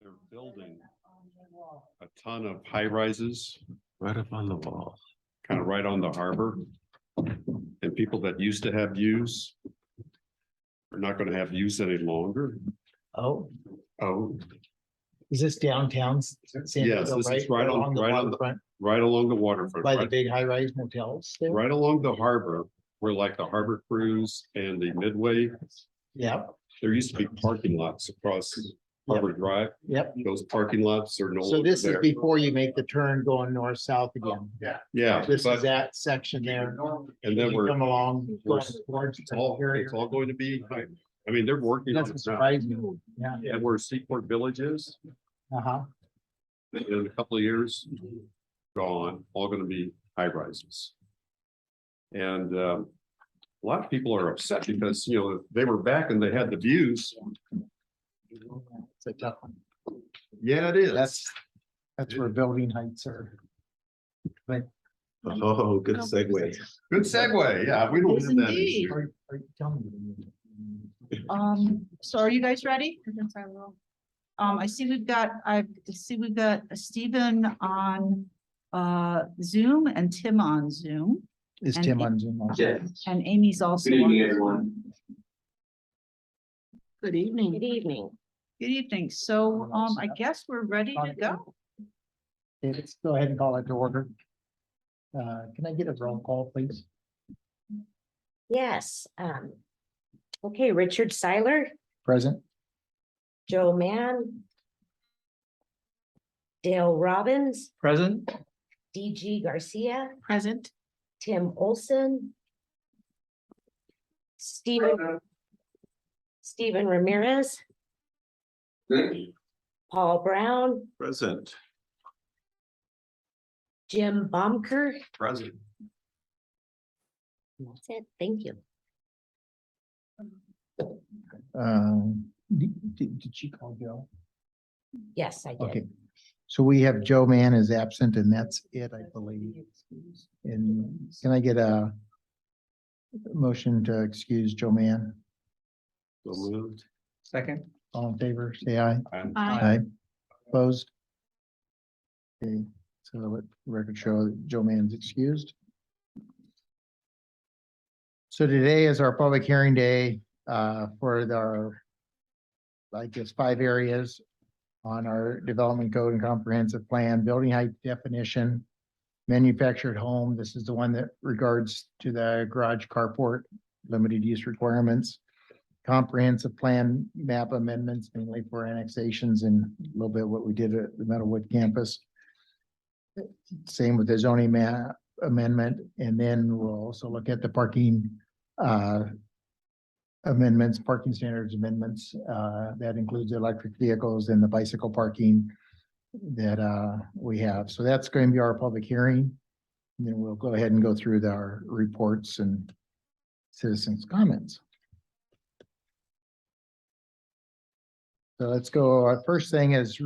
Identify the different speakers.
Speaker 1: they're building a ton of high rises
Speaker 2: Right up on the wall.
Speaker 1: kind of right on the harbor. And people that used to have views are not going to have views any longer.
Speaker 3: Oh,
Speaker 1: Oh,
Speaker 3: is this downtown? S- San
Speaker 1: Yes,
Speaker 3: Diego,
Speaker 1: this is right on-
Speaker 3: along the
Speaker 1: right on the-
Speaker 3: waterfront,
Speaker 1: right along the waterfront,
Speaker 3: By the
Speaker 1: right,
Speaker 3: big high-rise motels there?
Speaker 1: right along the harbor, where like the harbor cruise and the midway,
Speaker 3: Yep,
Speaker 1: there used to be parking lots across Harbor Drive.
Speaker 3: yep.
Speaker 1: Those parking lots are no
Speaker 3: So
Speaker 1: longer
Speaker 3: this is
Speaker 1: there.
Speaker 3: before you make the turn going north-south again.
Speaker 2: yeah.
Speaker 1: Yeah,
Speaker 3: This is
Speaker 1: but
Speaker 3: that section there.
Speaker 1: And then
Speaker 3: You
Speaker 1: we're-
Speaker 3: Come along.
Speaker 1: we're-
Speaker 3: going towards
Speaker 1: it's
Speaker 3: the
Speaker 1: all,
Speaker 3: area.
Speaker 1: it's all going to be, I I mean, they're working on
Speaker 3: Doesn't
Speaker 1: it now.
Speaker 3: surprise me, yeah,
Speaker 1: And where Seaport Village is,
Speaker 3: uh-huh.
Speaker 1: in a couple of years, gone, all gonna be high rises. And um, a lot of people are upset because, you know, they were back and they had the views.
Speaker 3: It's a tough one.
Speaker 1: Yeah, it is.
Speaker 3: That's, that's where building heights are.
Speaker 2: Oh, good segue.
Speaker 1: Good segue. Yeah, we don't
Speaker 4: Yes,
Speaker 1: have that
Speaker 4: indeed.
Speaker 1: issue.
Speaker 3: Are, are you telling me?
Speaker 4: Um, so are you guys ready? Um, I see we've got, I see we've got Stephen on uh Zoom and Tim on Zoom.
Speaker 3: Is
Speaker 4: And
Speaker 3: Tim
Speaker 4: it-
Speaker 3: on Zoom? also?
Speaker 5: Yes.
Speaker 4: And Amy's also.
Speaker 5: Good evening,
Speaker 4: on.
Speaker 5: everyone.
Speaker 4: Good evening.
Speaker 6: Good evening.
Speaker 4: Good evening. So um, I guess we're ready to go.
Speaker 3: Okay, Let's go ahead and call it to order. Uh, can I get a roll call, please?
Speaker 6: Yes, um. Okay, Richard Seiler,
Speaker 3: Present?
Speaker 6: Joe Mann. Dale Robbins,
Speaker 3: Present.
Speaker 6: DG Garcia,
Speaker 4: Present.
Speaker 6: Tim Olson. Steven. Steven Ramirez, Paul Brown,
Speaker 2: Present.
Speaker 6: Jim Bomker.
Speaker 2: Present.
Speaker 6: That's it. Thank you.
Speaker 3: Um, did, did did she call Joe?
Speaker 6: Yes, I did.
Speaker 3: Okay. So we have Joe Mann is absent and that's it, I believe. And can I get a motion to excuse Joe Mann?
Speaker 1: So moved.
Speaker 3: Second. All in favor, say aye.
Speaker 1: And
Speaker 3: Aye. Opposed? Okay, so let record show that Joe Mann's excused. So today is our public hearing day uh, for the- our, I guess, five areas on our development code and comprehensive plan, building height definition, manufactured home, this is the one that regards to the garage carport, limited use requirements comprehensive plan map amendments mainly for annexations and a little bit what we did at the Meadowwood campus. Same with the zoning ma- amendment, and then we'll also look at the parking uh amendments, parking standards amendments, uh, that includes the electric vehicles and the bicycle parking that uh we have. So that's going to be our public hearing. And Then we'll go ahead and go through the- our reports and citizens' comments. So let's go, our first thing is